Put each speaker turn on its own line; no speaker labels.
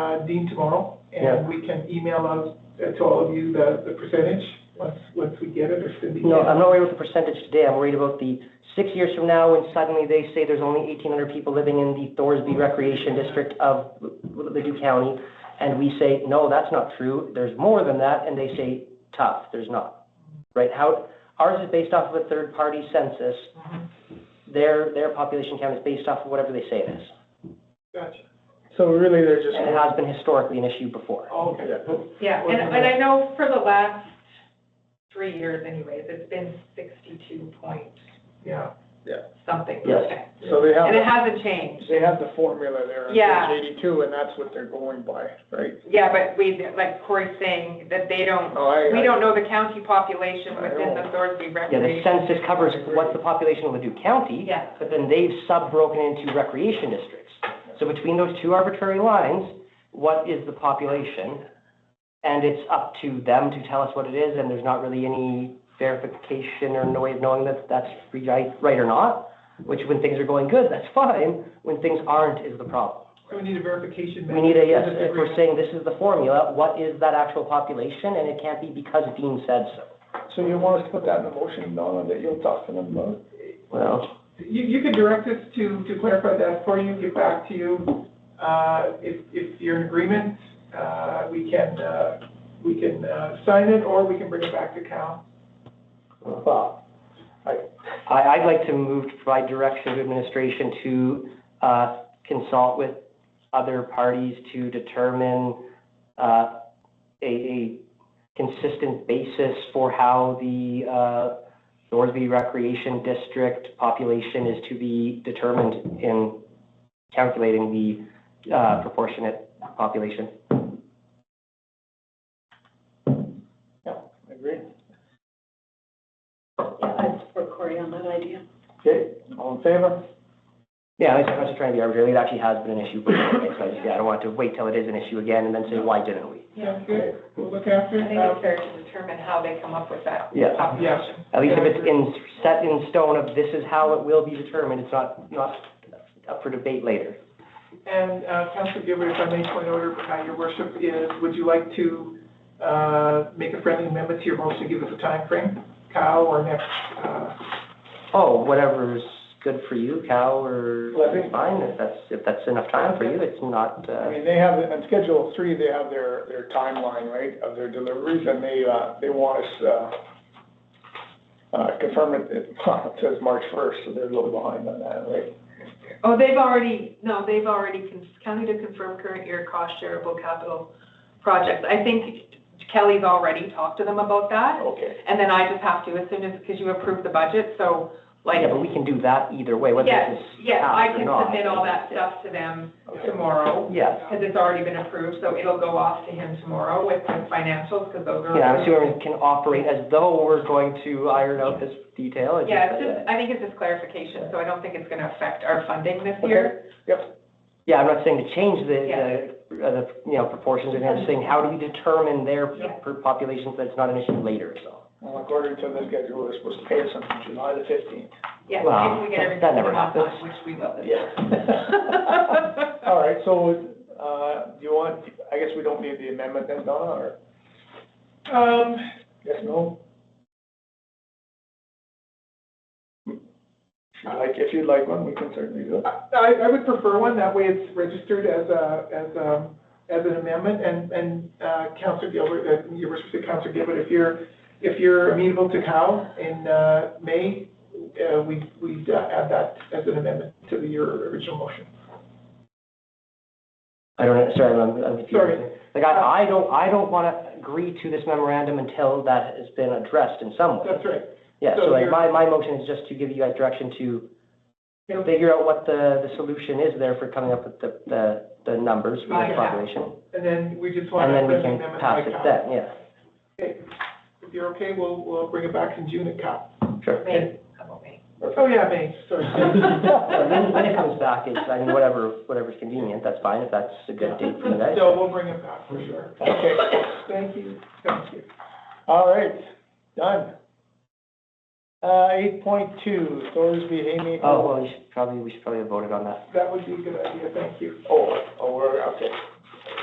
uh, Dean tomorrow,
Yeah.
and we can email out uh, to all of you the, the percentage, once, once we get it, or Cindy.
No,
gets it.
I'm not worried about the percentage today, I'm worried about the six years from now when suddenly they say there's only eighteen hundred people living in the Thorsby Recreation District of Ladue County, and we say, no, that's not true, there's more than that, and they say, tough, there's not. Right, how, ours is based off of a third-party census, their, their population count is based off of whatever they say it is.
Gotcha.
So really, they're just,
And it has been historically an issue before.
Oh, Okay.
Yeah, and, and I know for the last three years anyways, it's been sixty-two point
Yeah.
something
Yes.
percent.
so they
And it
have,
hasn't changed.
they have the formula there on
Yeah.
page eighty-two, and that's what they're going by, right?
Yeah, but we, like Corey's saying, that they don't,
Oh, I,
we
I,
don't know the county population
I
within the
don't-
Thorsby
Yeah, the
Recreation.
census covers what's the population of Ladue County.
Yeah.
But then they've sub-broken into recreation districts. So between those two arbitrary lines, what is the population? And it's up to them to tell us what it is, and there's not really any verification or no way of knowing that that's right, right or not. Which when things are going good, that's fine. When things aren't is the problem.
So we need a verification.
We need a, yes,
mechanism.
if we're saying this is the formula, what is that actual population? And it can't be because Dean said so.
So you want us to put that in the motion, Donna, that you're talking about?
Well,
You, you can direct us to, to clarify that for you, get back to you. Uh, if, if you're in agreement, uh, we can, uh, we can, uh, sign it, or we can bring it back to Cal.
Well,
I, I'd like to move to provide direction to administration to, uh, consult with other parties to determine, uh, a, a consistent basis for how the, uh, Thorsby Recreation District population is to be determined in calculating the, uh, proportionate population.
agree.
okay, all in favor?
Mm-hmm.
Yeah, I was I was just trying to be arbitrary, it actually has been an issue before, so I just, yeah, I don't want to wait till it is an issue again and then say, why didn't we?
Sounds good, we'll look after
I
it.
think
Um,
it's fair to determine how they come up with that
Yeah.
population.
At least if it's in, set in stone of this is how it will be determined, it's not, not up for debate later.
And, uh, Councilor Gilbert, if I may point order, uh, your worship is, would you like to, uh, make a friendly amendment to your motion, give us a time frame, Cal or next, uh,
Oh, whatever's good for you, Cal, or
Well, I think-
fine, if that's, if that's enough time for you, it's not,
I
uh,
mean, they have, on schedule three, they have their, their timeline, right, of their deliveries, and they, uh, they want us, uh, uh, confirm it, it says March first, so they're a little behind on that, right?
Oh, they've already, no, they've already, con- county to confirm current year cost shareable capital projects. I think Kelly's already talked to them about that.
Okay.
And then I just have to, as soon as, because you approved the budget, so like,
yeah, but we can do that either way, whether
yes,
this is
yes,
passed or
I can
not.
submit all that stuff to them
Okay.
tomorrow,
Yeah,
because it's already been approved, so it'll go off to him tomorrow with the financials, because those are.
yeah, I'm assuming we can operate as though we're going to iron out this detail. it's
Yeah,
just-
it's just, I think it's just clarification, so I don't think it's going to affect our funding this year.
Yeah, I'm not saying to change the,
Yeah.
the, uh, the, you know, proportions, and I'm saying, how do we determine their
Yeah.
per populations that it's not an issue later, so.
Well, according to the schedule, they're supposed to pay us on July the fifteenth.
Yeah,
Well,
if
that-
we get everything
that never
on time,
happens.
which we will this year.
Yeah. All right, so, uh, do you want, I guess we don't need the amendment then, Donna, or,
um,
yes, no? If you'd Like, if you'd like one, we can certainly do it.
I, I would prefer one, that way it's registered as a, as a, as an amendment, and, and, uh, Counselor Gilbert, uh, your respect, Counselor Gilbert, if you're, if you're amenable to Cal in, uh, May, uh, we, we'd uh, add that as an amendment to the- your original motion.
I don't, know. sorry, I'm, I'm confused.
Sorry.
Like, I, I don't, I don't wanna agree to this memorandum until that has been addressed in some way.
That's right.
Yeah,
so
so like,
you're-
my, my motion is just to give you guys direction to
Yeah.
figure out what the, the solution is there for coming up with the, the, the numbers for
Right,
the
yeah.
population.
And then we just want
And
to
then we
amend the amendment by
can pass it
Cal.
then, yeah,
If you're okay, we'll, we'll bring it back in June at Cal.
sure.
May, how about May?
Oh, yeah, May, sorry.
Well, When, when it comes back, it's, I mean, whatever, whatever's convenient, that's fine, if that's a good date for you guys.
So we'll bring it back for sure.
Okay,
Thank you, thank you.
all right, done. Uh, eight point two, Thorsby Haymaker.
Oh, well, we should probably, we should probably have voted on that.
That would be a good idea, thank you.
Oh, oh, we're, okay,